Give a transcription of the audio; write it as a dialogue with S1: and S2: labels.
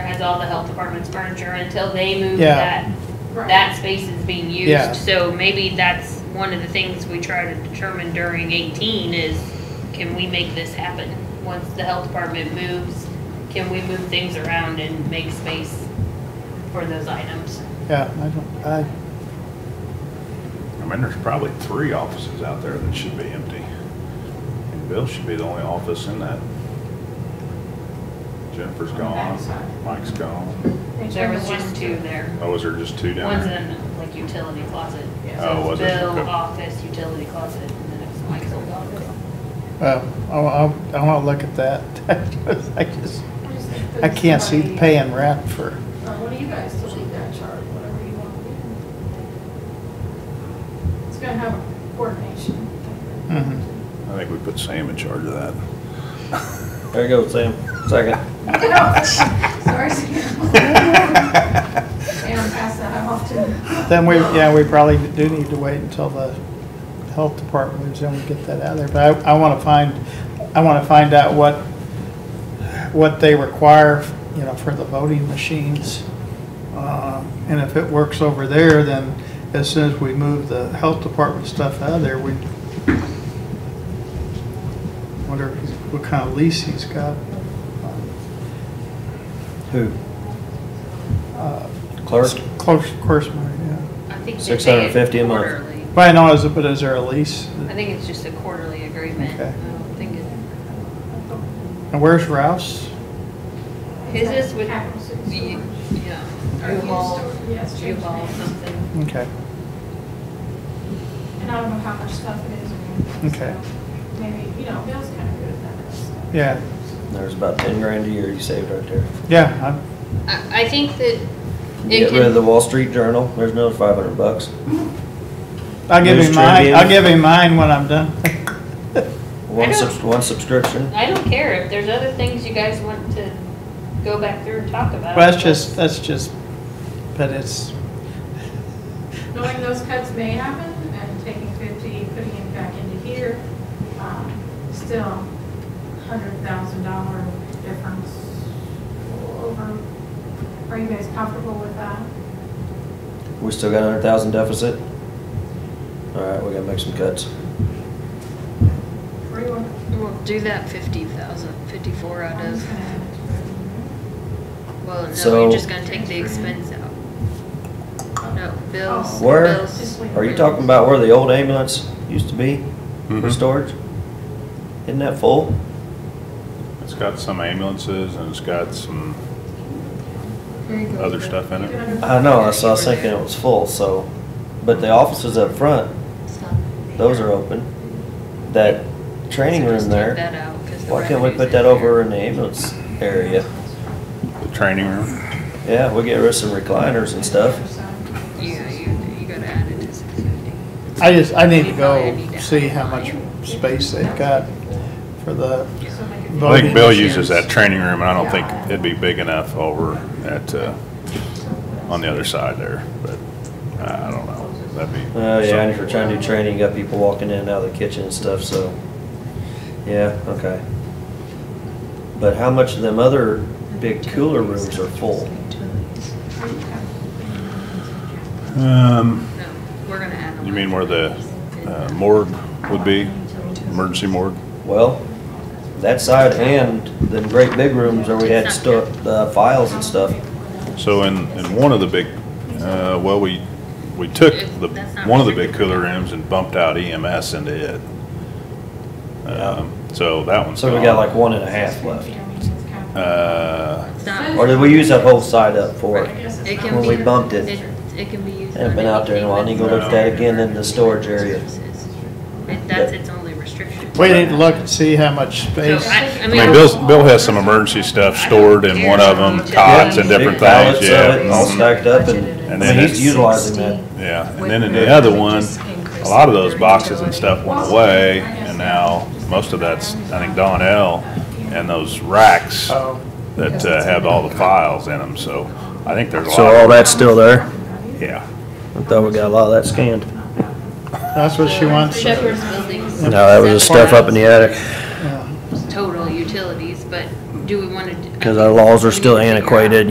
S1: has all the health department's furniture until they move
S2: Yeah.
S1: that, that space is being
S2: Yeah.
S1: used. So maybe that's one of the things we try to determine during eighteen is, can we make this happen? Once the health department moves, can we move things around and make space for those items?
S2: Yeah, I don't, I,
S3: I mean, there's probably three offices out there that should be empty. And Bill should be the only office in that. Jennifer's gone, Mike's gone.
S1: There was just two there.
S3: Oh, is there just two down
S1: One's
S3: there?
S1: in like utility closet.
S4: Yeah.
S3: Oh,
S1: So
S3: was
S1: it's
S3: it?
S1: Bill,
S3: Okay.
S1: office, utility closet, and then it's Mike's old office.
S2: well, I, I, I wanna look at that. I just, I can't see paying rent for,
S4: What do you guys to leave that chart, whatever you want to do? It's gonna have coordination.
S2: mhm.
S3: I think we put Sam in charge of that.
S5: There you go, Sam. Second.
S4: Sorry, Sam. Sam passed that off to.
S2: Then we, yeah, we probably do need to wait until the health department moves in, we get that out of there. But I, I wanna find, I wanna find out what, what they require, you know, for the voting machines. Uh, And if it works over there, then as soon as we move the health department stuff out of there, we wonder what kind of lease he's got.
S5: Who?
S2: Uh,
S5: Clerk?
S2: Close, course, yeah.
S1: I think they pay it
S5: 650 a month.
S1: quarterly.
S2: But I know, is it, but is there a lease?
S1: I think it's just a quarterly agreement.
S2: Okay.
S1: I don't think it-
S2: And where's Ralph's?
S1: His is with,
S4: Capital City
S1: the-
S4: Storage.
S1: yeah,
S4: Or used
S1: U-Haul,
S4: storage, Yes, change
S1: U-Haul
S4: names.
S1: something.
S2: Okay.
S4: And I don't know how much stuff it is or anything.
S2: Okay.
S4: so Maymaybe, you know, Bill's kind of good at that kind of stuff.
S2: Yeah,
S5: There's about ten grand a year you saved right there.
S2: yeah,
S1: I, I think that it
S5: Get rid of the
S1: can,
S5: Wall Street Journal. There's another five hundred bucks.
S2: I- I'll give
S5: News
S2: him mine,
S5: Tribune.
S2: I'll give him mine when I'm done.
S5: One
S1: don't-
S5: subs, one subscription.
S1: I don't care if there's other things you guys want to go back through and talk about.
S2: Well, that's just, that's just, but it's,
S4: Knowing those cuts may happen and taking fifty, putting it back into here, um, still hundred thousand dollar difference over. Are you guys comfortable with that?
S5: We still got a hundred thousand deficit. All right, we gotta make some cuts.
S4: Or you want?
S1: We'll do that fifty thousand, fifty-four out
S4: I'm just
S1: of,
S4: gonna add it to
S1: well, no,
S5: So-
S1: you're just gonna take the expense out. No, bills,
S5: Where,
S4: it. Oh. Just
S1: bills.
S4: leave it.
S5: are you talking about where the old ambulance used to be for
S3: Mhm.
S5: storage? Isn't that full?
S3: It's got some ambulances and it's got some other stuff in
S4: You
S3: it.
S4: can
S5: I know, so I was thinking it was full, so, but the offices up front,
S1: It's not-
S5: those are open. That training
S1: So just
S5: room
S1: take
S5: there.
S1: that out, 'cause the
S5: Why can't we
S1: revenue's
S5: put
S1: in
S5: that
S1: there.
S5: over in the ambulance area?
S3: The training room.
S5: Yeah, we get rid of some recliners and stuff.
S1: Yeah, you, you gotta add it to six fifty.
S2: I just, I need to
S1: You probably
S2: go
S1: need to
S2: see
S1: have
S2: how much
S1: mine.
S2: space they've got for the,
S4: So make it-
S3: I think Bill
S2: Voting machines.
S3: uses that training room and I don't think it'd be big enough over at, uh, on the other side there, but I don't know. That'd be.
S5: Oh, yeah, and
S3: something.
S5: if you're trying to do training, you got people walking in and out of the kitchen and stuff, so, yeah, okay. But how much of them other big cooler rooms are full?
S3: Um,
S1: No, we're gonna add them.
S3: you mean where the uh, morgue would be, emergency morgue?
S5: Well, that side and the great big rooms where we had stuff, the files and stuff.
S3: So in, in one of the big, uh, well, we, we took the, one of the big cooler rooms and bumped out EMS into it. Um, So that one's
S5: So we got
S3: gone.
S5: like one and a half left.
S3: Uh,
S1: It's not-
S5: Or did we use that whole side up for it?
S1: It can
S5: When we
S1: be-
S5: bumped it.
S1: It can be used.
S5: Haven't been
S1: on
S5: out there in a while. I need to go
S3: look at
S1: anything.
S5: that again in the storage area.
S1: It- That's its only restriction.
S2: we need to look and see how much space.
S1: So I, I
S3: I
S1: mean.
S3: mean, Bill's, Bill has some emergency stuff stored in one of them, cots and different
S5: Big pallets
S3: things,
S5: of
S3: yeah.
S5: it, All
S3: mhm.
S5: stacked up and,
S3: And
S5: I
S3: then
S5: mean, he's
S3: it's-
S5: utilizing that.
S3: Yeah, and then in the other one, a lot of those boxes and stuff went away, and now most of that's, I think Donnell, and those racks
S2: So,
S3: that uh, have all the files in them, so I think there's a lot.
S5: So all that's still there?
S3: Yeah,
S5: I thought we got a lot of that scanned.
S2: that's what she wants.
S1: Shepherd's buildings.
S5: No, that was the stuff up in the attic,
S2: Yeah.
S1: Total utilities, but do we wanna? d-
S5: because our laws are still
S1: We need to figure out-
S5: antiquated,